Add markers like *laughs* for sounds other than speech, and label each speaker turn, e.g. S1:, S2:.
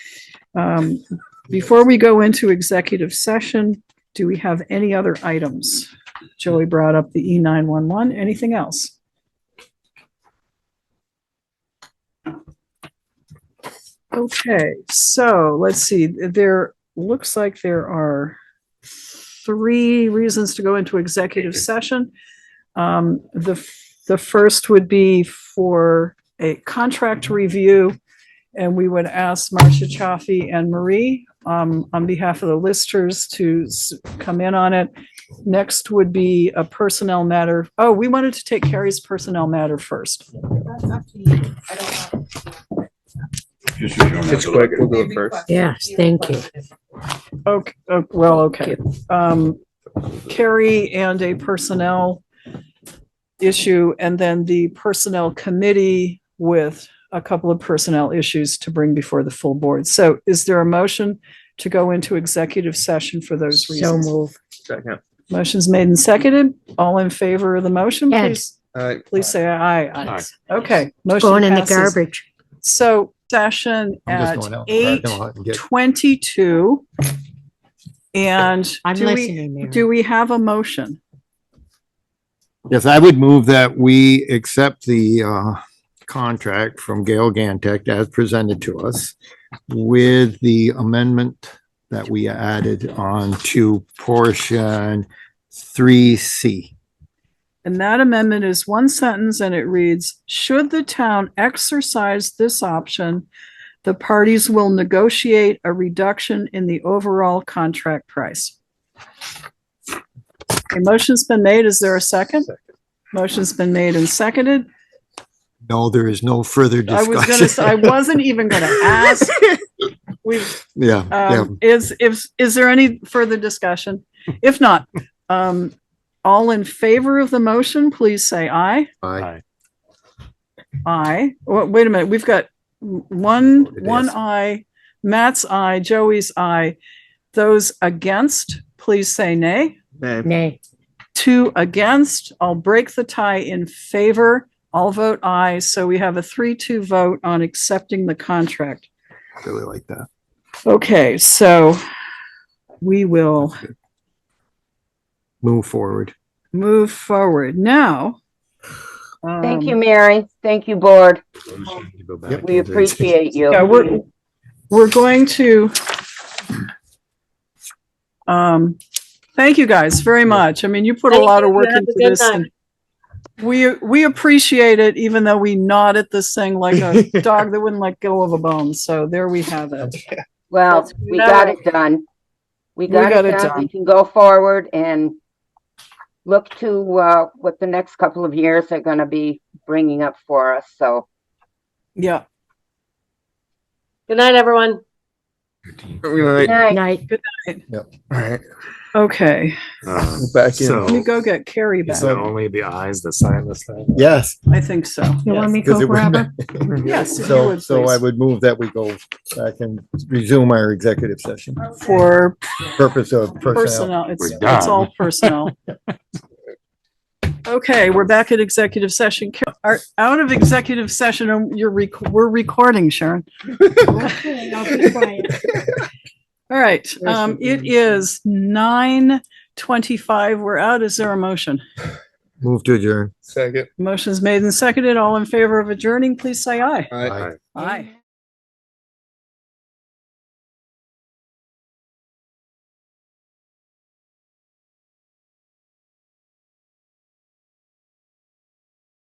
S1: Um, Before we go into executive session, do we have any other items? Joey brought up the E nine one one. Anything else? Okay, so let's see. There looks like there are three reasons to go into executive session. Um, the, f- the first would be for a contract review. And we would ask Marcia Chaffee and Marie, um, on behalf of the listers to s- come in on it. Next would be a personnel matter. Oh, we wanted to take Carrie's personnel matter first.
S2: That's up to you. I don't know.
S3: Just as you're not
S4: It's quick, we'll do
S2: They
S4: it first.
S2: request-
S5: Yes,
S2: they
S5: thank you.
S2: request it.
S1: Okay, oh, well, okay. Um, Carrie and a personnel issue and then the personnel committee with a couple of personnel issues to bring before the full board. So is there a motion to go into executive session for those
S5: So
S1: reasons?
S5: move.
S4: Second.
S1: Motion's made and seconded. All in favor of the motion,
S5: Ed.
S1: please,
S4: All right.
S1: please say aye. Aye.
S3: Aye.
S1: Okay. motion
S5: Going in the
S1: passes.
S5: garbage.
S1: So session at eight twenty-two. And
S5: I'm
S1: do we,
S5: listening,
S1: do
S5: Mary.
S1: we have a motion?
S6: Yes, I would move that we accept the uh, contract from Gail Gantek as presented to us with the amendment that we added on to portion three C.
S1: And that amendment is one sentence and it reads, should the town exercise this option, the parties will negotiate a reduction in the overall contract price. A motion's been made. Is there a second? Motion's been made and seconded.
S6: No, there is no further
S1: I was gonna, say I
S6: discussion.
S1: wasn't even gonna ask. We've,
S6: *laughs* Yeah, yeah.
S1: Um, is, if, is there any further discussion? If not, um, all in favor of the motion, please say aye.
S6: Aye.
S1: Aye. Wa- Wait a minute, we've got one,
S6: It
S1: one
S6: is.
S1: aye, Matt's aye, Joey's aye. Those against, please say nay.
S4: Name.
S5: Nay.
S1: Two against, I'll break the tie in favor. I'll vote aye. So we have a three-two vote on accepting the contract.
S6: Really like that.
S1: Okay, so we will
S6: Move forward.
S1: move forward now. um,
S7: Thank you, Mary. Thank you, board.
S6: Yep.
S7: We appreciate you.
S1: Yeah, we're, we're going to. Um, thank you guys very much. I mean, you put a
S7: Thank
S1: lot of
S7: you.
S1: work
S7: Have a
S1: into
S7: good
S1: this.
S7: night.
S1: and We, we appreciate it, even though we nod at this thing like a
S6: *laughs*
S1: dog that wouldn't let go of a bone. So there we have it.
S7: Well,
S1: That's
S7: we got
S1: enough.
S7: it done. We got it done.
S1: done.
S7: We can go forward and look to, uh, what the next couple of years are gonna be bringing up for us, so.
S1: Yeah.
S7: Good night, everyone. Good
S4: All
S7: night.
S5: Night.
S4: right.
S1: Okay.
S8: Um,
S4: Back in.
S8: so
S1: Let me go get Carrie
S8: is
S1: back.
S8: it only the eyes that sign this thing?
S6: Yes.
S1: I think so.
S5: You want me to
S6: 'cause
S5: go
S6: it would-
S5: grab her?
S1: Yes, if you
S6: So,
S1: would
S6: so I
S1: please.
S6: would move that we go back and resume our executive session
S1: For
S6: purpose of personnel.
S1: personnel, it's,
S3: We're
S1: it's
S3: done.
S1: all personnel. Okay, we're back at executive session. Ca- Are out of executive session, and you're, rec- we're recording, Sharon.
S2: Okay, I'll be quiet.
S1: All right, um, it is nine twenty-five. We're out. Is there a motion?
S6: Move to adjourn.
S4: Second.
S1: Motion's made and seconded. All in favor of adjourning, please say aye.
S4: All right.
S1: Aye.